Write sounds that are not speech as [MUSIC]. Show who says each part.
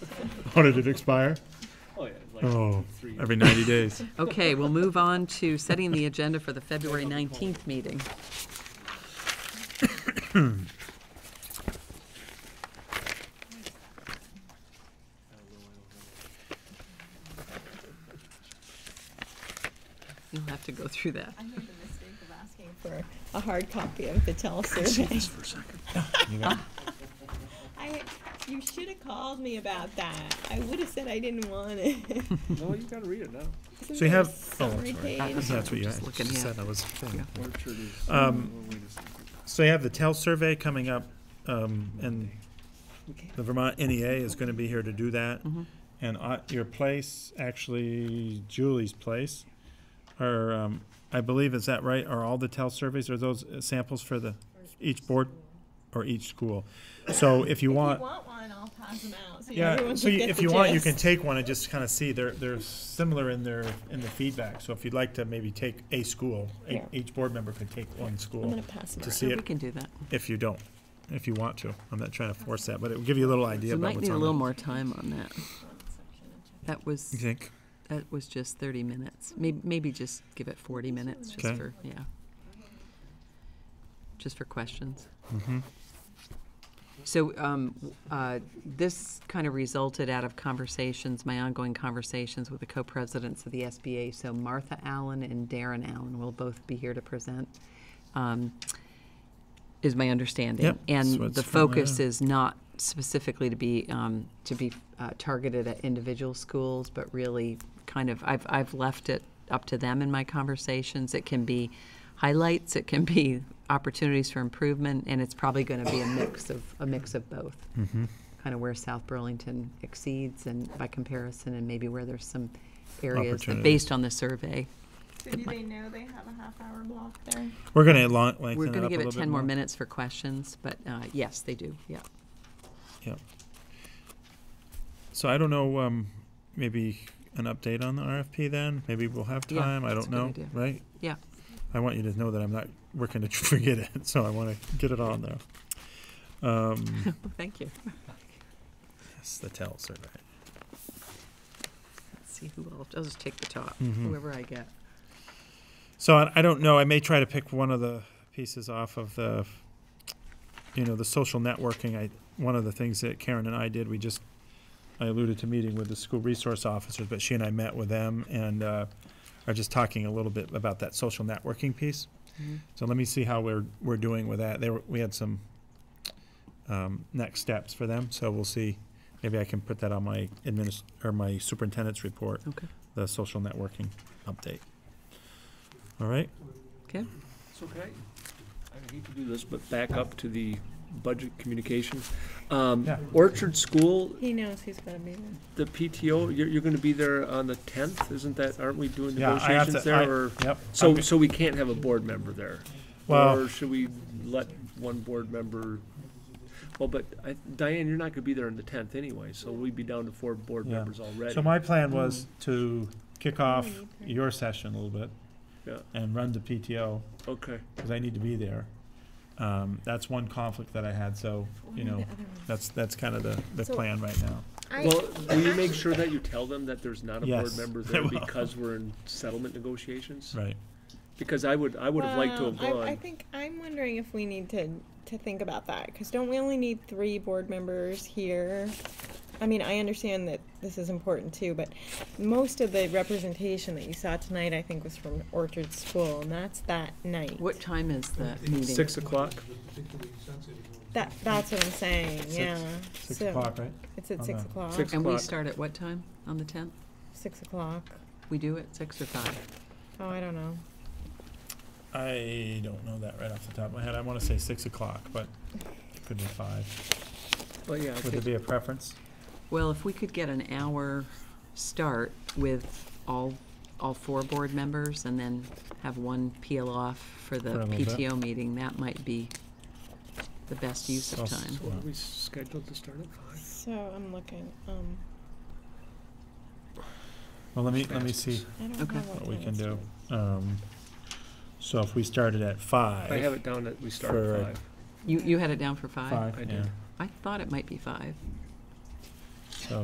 Speaker 1: How did it expire?
Speaker 2: Oh, yeah, it's like
Speaker 1: Oh,
Speaker 2: three.
Speaker 3: every 90
Speaker 2: [LAUGHS]
Speaker 3: days.
Speaker 4: Okay, we'll move on to setting the agenda for the February 19th meeting. You'll have to go through that.
Speaker 5: I made the mistake of asking for a hard copy of the tell survey. [LAUGHS] I, you should have called me about that. I would have said I didn't want
Speaker 3: [LAUGHS]
Speaker 5: it.
Speaker 2: No, you gotta read it now.
Speaker 5: Isn't
Speaker 3: So you
Speaker 5: there a
Speaker 3: have- oh,
Speaker 5: summary
Speaker 3: sorry.
Speaker 5: page?
Speaker 3: That's what you
Speaker 4: Just
Speaker 3: actually
Speaker 4: looking at-
Speaker 3: said, I was thinking.
Speaker 2: Orchard is.
Speaker 3: Um,
Speaker 2: Oh, wait a second.
Speaker 3: So you have the TEL survey coming up, um, and the Vermont NEA is gonna be here to do that.
Speaker 2: Mm-hmm.
Speaker 3: And uh, your place, actually Julie's place, are, um, I believe, is that right? Are all the TEL surveys, are those samples for the, each board or each school? So if [LAUGHS] you
Speaker 5: If you
Speaker 3: want.
Speaker 5: want one, I'll pass them out, [LAUGHS] so
Speaker 3: Yeah,
Speaker 5: everyone
Speaker 3: so
Speaker 5: can
Speaker 3: you-
Speaker 5: get
Speaker 3: if
Speaker 5: the
Speaker 3: you want, you can
Speaker 5: gist.
Speaker 3: take one and just kind of see, they're, they're similar in their, in the feedback. So if you'd like to maybe take a school, e-
Speaker 5: Yeah.
Speaker 3: each board member could take one
Speaker 5: I'm
Speaker 3: school
Speaker 5: gonna pass them
Speaker 3: to
Speaker 5: out.
Speaker 3: see
Speaker 4: So we
Speaker 3: it,
Speaker 4: can do that.
Speaker 3: if you don't, if you want to. I'm not trying to force that, but it will give you a little idea
Speaker 4: We
Speaker 3: about
Speaker 4: might
Speaker 3: what's
Speaker 4: need a
Speaker 3: on
Speaker 4: little
Speaker 3: there.
Speaker 4: more time on that. That was,
Speaker 3: You think?
Speaker 4: that uh, was just 30 minutes. Maybe, maybe just give it 40 minutes, just
Speaker 3: Okay.
Speaker 4: for, yeah. Just for questions. So um, w- uh, this kind of resulted out of conversations, my ongoing conversations with the co-presidents of the SBA. So Martha Allen and Darren Allen will both be here to present, um, is my understanding.
Speaker 3: Yep, that's
Speaker 4: And
Speaker 3: what's
Speaker 4: the
Speaker 3: from
Speaker 4: focus
Speaker 3: there.
Speaker 4: is not specifically to be, um, to be uh, targeted at individual schools, but really kind of, I've, I've left it up to them in my conversations. It can be highlights, it can be opportunities for improvement, and it's probably going to be a mix of, a mix of both.
Speaker 3: Mm-hmm.
Speaker 4: Kind of where South Burlington exceeds and by comparison, and maybe where there's some areas that,
Speaker 3: Opportunities.
Speaker 4: based on the survey,
Speaker 5: So do they know they have a half hour block there?
Speaker 3: We're gonna lon- lengthen
Speaker 4: We're
Speaker 3: it
Speaker 4: going
Speaker 3: up
Speaker 4: to
Speaker 3: a
Speaker 4: give it
Speaker 3: little bit
Speaker 4: 10 more minutes for questions, but uh, yes, they do, yeah.
Speaker 3: Yep. So I don't know, um, maybe an update on the RFP then? Maybe we'll have
Speaker 4: Yeah,
Speaker 3: time, I
Speaker 4: that's
Speaker 3: don't
Speaker 4: a good
Speaker 3: know,
Speaker 4: idea.
Speaker 3: right?
Speaker 4: Yeah.
Speaker 3: I want you to know that I'm not working to [LAUGHS] forget it, so I want to get it on there. Um,
Speaker 4: Thank you.
Speaker 3: yes, the tell survey.
Speaker 4: Let's see who else, I'll just take the top,
Speaker 3: Mhm.
Speaker 4: whoever I get.
Speaker 3: So I, I don't know. I may try to pick one of the pieces off of the, you know, the social networking. I one of the things that Karen and I did. We just I alluded to meeting with the school resource officers, but she and I met with them and uh, are just talking a little bit about that social networking piece.
Speaker 4: Mhm.
Speaker 3: So let me see how we're we're doing with that. There we had some um, next steps for them. So we'll see. Maybe I can put that on my administ- or my superintendent's report.
Speaker 4: Okay.
Speaker 3: The social networking update. All right.
Speaker 4: Okay.
Speaker 2: So can I, I hate to do this, but back up to the budget communication. Um,
Speaker 3: Yeah.
Speaker 2: Orchard School,
Speaker 5: He knows who's gonna be
Speaker 2: the
Speaker 5: there.
Speaker 2: PTO, you're, you're gonna be there on the tenth, isn't that, aren't we doing
Speaker 3: Yeah, I have
Speaker 2: negotiations
Speaker 3: to- I-
Speaker 2: there, or?
Speaker 3: Yep.
Speaker 2: So,
Speaker 3: Okay.
Speaker 2: so we can't have a board member there?
Speaker 3: Well-
Speaker 2: Or should we let one board member, well, but I- Diane, you're not gonna be there on the tenth anyway, so we'd be down to four board
Speaker 3: Yeah.
Speaker 2: members already.
Speaker 3: So my plan was to kick off
Speaker 5: need three.
Speaker 3: your session a little bit
Speaker 2: Yeah,
Speaker 3: and run to PTO,
Speaker 2: okay,
Speaker 3: because I need to be there. Um, that's one conflict that I had, so, you know, that's, that's kind of the, the
Speaker 5: So-
Speaker 3: plan right now.
Speaker 2: well, will you make sure that you tell them that there's not a board
Speaker 3: Yes,
Speaker 2: member
Speaker 3: I
Speaker 2: there
Speaker 3: will.
Speaker 2: because we're in settlement negotiations?
Speaker 3: Right.
Speaker 2: Because I would, I would have liked to
Speaker 5: Well,
Speaker 2: have
Speaker 5: Um, I, I
Speaker 2: gone,
Speaker 5: think I'm wondering if we need to to think about that because don't we only need three board members here? I mean, I understand that this is important too, but most of the representation that you saw tonight, I think, was from Orchard School, and that's that night.
Speaker 4: What time is the meeting?
Speaker 2: six o'clock,
Speaker 5: That that's what I'm saying. yeah.
Speaker 3: Six
Speaker 5: so
Speaker 3: o'clock, right?
Speaker 5: It's at
Speaker 3: on
Speaker 5: six
Speaker 3: the-
Speaker 5: o'clock.
Speaker 2: Six.
Speaker 4: And we
Speaker 2: o'clock.
Speaker 4: start at what time on the 10th?
Speaker 5: Six o'clock.
Speaker 4: We do at 6 or 5?
Speaker 5: Oh, I don't know.
Speaker 3: I don't know that right off the top of my head. I want to say six o'clock, but it could be five.
Speaker 4: Well, yeah.
Speaker 3: Would there be a preference?
Speaker 4: Well, if we could get an hour start with all, all four board members and then have one peel off for the
Speaker 3: For a little bit.
Speaker 4: PTO meeting, that might be the best use of
Speaker 3: So-
Speaker 4: time.
Speaker 2: so are we scheduled to start at five?
Speaker 5: So I'm looking. Um,
Speaker 3: Well, let me, let me see
Speaker 5: I don't
Speaker 4: Okay.
Speaker 5: know what
Speaker 3: what we
Speaker 5: time
Speaker 3: can
Speaker 5: it
Speaker 3: do.
Speaker 5: starts.
Speaker 3: Um, so if we started at five.
Speaker 2: I have it down that we start
Speaker 3: For- uh,
Speaker 2: at five.
Speaker 4: You, you had it down for 5?
Speaker 3: Five,
Speaker 2: I
Speaker 3: yeah.
Speaker 2: did.
Speaker 4: I thought it might be 5.